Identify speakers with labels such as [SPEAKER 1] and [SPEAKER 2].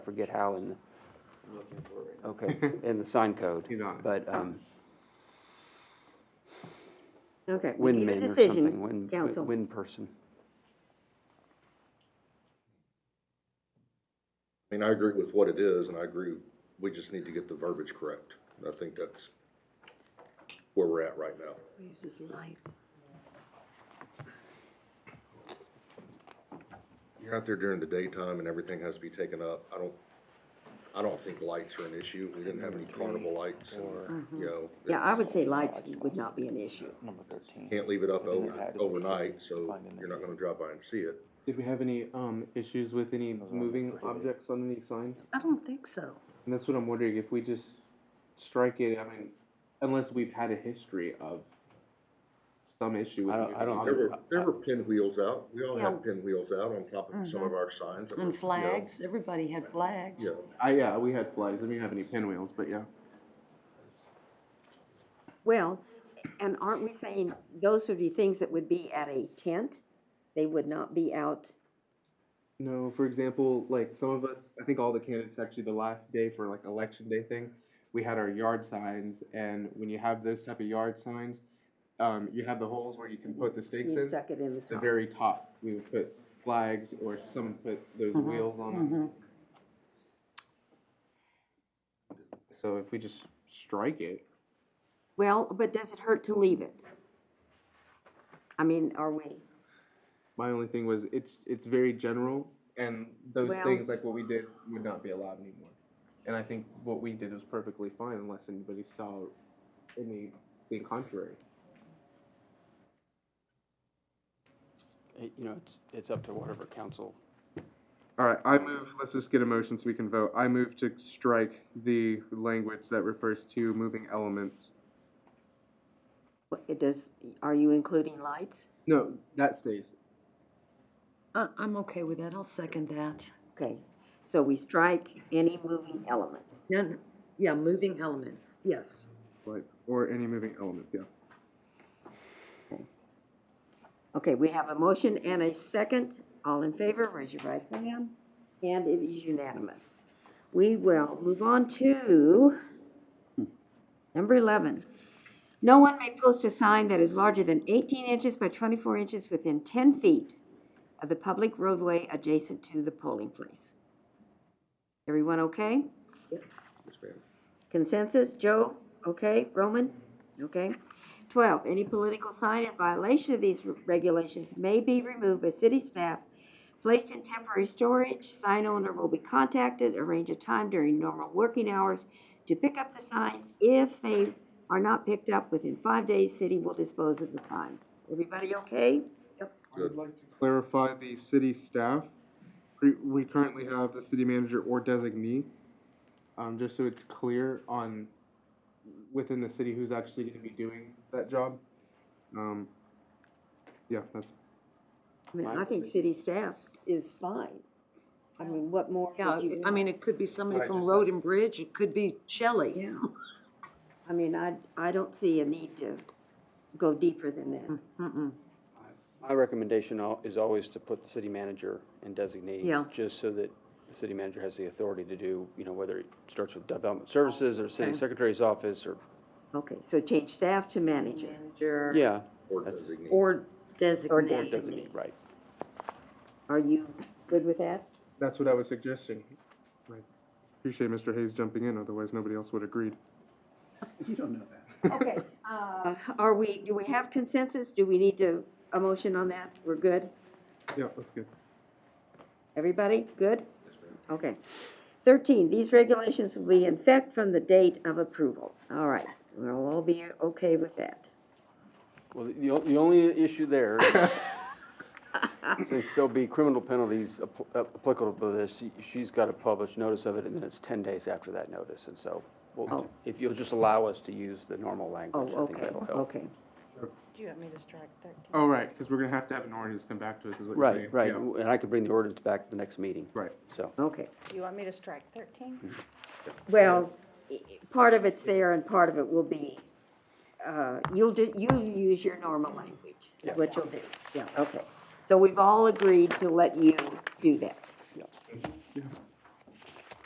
[SPEAKER 1] I forget how in, the-
[SPEAKER 2] I'm looking for it right now.
[SPEAKER 1] okay, in the sign code.
[SPEAKER 2] He's on it.
[SPEAKER 1] But, um,
[SPEAKER 3] Okay, we need a
[SPEAKER 1] windman or something,
[SPEAKER 3] decision,
[SPEAKER 1] wind,
[SPEAKER 3] council.
[SPEAKER 1] wind person.
[SPEAKER 4] I mean, I agree with what it is, and I agree, we just need to get the verbiage correct. And I think that's where we're at right now.
[SPEAKER 5] Uses lights.
[SPEAKER 4] You're out there during the daytime and everything has to be taken up. I don't, I don't think lights are an issue. We didn't have any carnival lights and, you know.
[SPEAKER 3] Mm-hmm. Yeah, I
[SPEAKER 4] it's-
[SPEAKER 3] would say lights would not be an issue.
[SPEAKER 6] Number thirteen.
[SPEAKER 4] Can't leave it up
[SPEAKER 6] What does it
[SPEAKER 4] over-
[SPEAKER 6] have? Does it
[SPEAKER 4] overnight,
[SPEAKER 6] indicate
[SPEAKER 4] so
[SPEAKER 6] defined in the
[SPEAKER 4] you're not gonna drive by and see it.
[SPEAKER 2] Did we have any, um, issues with any
[SPEAKER 6] are all
[SPEAKER 2] moving
[SPEAKER 6] prohibited.
[SPEAKER 2] objects on the sign?
[SPEAKER 5] I don't think so.
[SPEAKER 2] And that's what I'm wondering, if we just strike it, I mean, unless we've had a history of some issue with.
[SPEAKER 1] I don't- I don't
[SPEAKER 4] There
[SPEAKER 2] moving
[SPEAKER 4] were, there were pinwheels out. We all
[SPEAKER 5] Yeah. Mm-hmm.
[SPEAKER 4] had pinwheels out on top of some of our signs. I mean, you
[SPEAKER 5] And
[SPEAKER 4] know,
[SPEAKER 5] flags, everybody had flags.
[SPEAKER 4] Yeah,
[SPEAKER 2] objects. I, yeah, we had flags, I didn't have any pinwheels, but yeah.
[SPEAKER 3] Well, and aren't we saying those would be things that would be at a tent? They would not be out,
[SPEAKER 2] No, for example, like some of us, I think all the candidates actually the last day for like election day thing, we had our yard signs, and when you have those type of yard signs, um, you have the holes where you can put the stakes
[SPEAKER 3] you
[SPEAKER 2] in.
[SPEAKER 3] stuck it in the
[SPEAKER 2] The
[SPEAKER 3] top.
[SPEAKER 2] very top, we would put flags or someone put those wheels
[SPEAKER 5] Mm-hmm.
[SPEAKER 3] Mm-hmm.
[SPEAKER 2] on it. So if we just strike it,
[SPEAKER 3] Well, but does it hurt to leave it? I mean, are we,
[SPEAKER 2] my only thing was it's it's very general, and those
[SPEAKER 3] Well-
[SPEAKER 2] things like what we did would not be allowed anymore. And I think what we did was perfectly fine unless anybody saw anything contrary.
[SPEAKER 1] It- You know, it's, it's up to whatever council.
[SPEAKER 2] All right, I move. Let's just get a motion so we can vote. I move to strike the language that refers to moving elements.
[SPEAKER 3] what- it does, are you including lights?
[SPEAKER 2] No, that stays.
[SPEAKER 5] I, Uh, I'm okay with that, I'll second that.
[SPEAKER 3] Okay, so we strike any moving elements.
[SPEAKER 5] Then, yeah, moving elements, yes.
[SPEAKER 2] Lights or any moving elements. Yeah.
[SPEAKER 3] Okay, we have a motion and a second. All in favor, raise your right hand. And it is unanimous. We will move on to number 11. No one may post a sign that is larger than 18 inches by 24 inches within 10 feet of the public roadway adjacent to the polling place. Everyone okay?
[SPEAKER 4] yes, ma'am.
[SPEAKER 3] Consensus, Joe, okay, Roman, okay. Twelve, any political sign in violation of these regulations may be removed by city staff, placed in temporary storage, sign owner will be contacted, arrange a time during normal working hours to pick up the signs. If they are not picked up within five days, city will dispose of the signs. Everybody okay?
[SPEAKER 2] I would like to clarify the city staff. Pre- We currently have the city manager or designee, um, just so it's clear on, within the city who's actually gonna be doing that job. Um, yeah, that's,
[SPEAKER 3] I mean, I think city staff is fine. I mean, what more
[SPEAKER 5] Yeah,
[SPEAKER 3] could you?
[SPEAKER 5] I mean, it could be somebody from Road and Bridge, it could be Shelley.
[SPEAKER 3] Yeah. I mean, I, I don't see a need to go deeper than
[SPEAKER 5] Hmm.
[SPEAKER 3] that.
[SPEAKER 5] Mm-mm.
[SPEAKER 1] My recommendation al- is always to put the city manager and designate.
[SPEAKER 5] Yeah.
[SPEAKER 1] Just so that the city manager has the authority to do, you know, whether it starts with development services or city
[SPEAKER 5] Okay.
[SPEAKER 1] secretary's office or,
[SPEAKER 3] Okay, so change staff to manager.
[SPEAKER 1] yeah,
[SPEAKER 4] Or
[SPEAKER 1] That's-
[SPEAKER 4] designate.
[SPEAKER 5] Or designate.
[SPEAKER 3] designate.
[SPEAKER 1] designate, right.
[SPEAKER 3] Are you good with that?
[SPEAKER 2] that's what I was suggesting. I Appreciate Mr. Hayes jumping in, otherwise nobody else would agreed.
[SPEAKER 3] Okay. uh, Are we, do we have consensus? Do we need to, a motion on that? We're good?
[SPEAKER 2] Yeah, that's good.
[SPEAKER 3] Everybody, good? Okay. Thirteen, these regulations will be in effect from the date of approval. All right, we'll all be okay with that.
[SPEAKER 1] Well, the, the o- the only issue there is, since there'll be criminal penalties app- applicable to this, she- she's got to publish notice of it, and then it's 10 days after that notice. And so, we'll-
[SPEAKER 3] Oh.
[SPEAKER 1] if you'll just allow us to use the normal
[SPEAKER 3] Oh,
[SPEAKER 1] language, I think
[SPEAKER 3] okay,
[SPEAKER 1] that'll help.
[SPEAKER 3] okay.
[SPEAKER 5] Do you want me to strike thirteen?
[SPEAKER 2] Oh, right, because we're gonna have to have an ordinance come back to us, is what you're saying.
[SPEAKER 1] Right, right,
[SPEAKER 2] Yeah,
[SPEAKER 1] and I could bring the ordinance back to the next meeting,
[SPEAKER 2] Right.
[SPEAKER 1] so.
[SPEAKER 3] Okay.
[SPEAKER 7] You want me to strike thirteen?
[SPEAKER 3] Well, i- i- part of it's there and part of it will be, uh, you'll do, you'll use your normal language, is what you'll do. Yeah, okay. So we've all agreed to let you do that.
[SPEAKER 1] Yeah.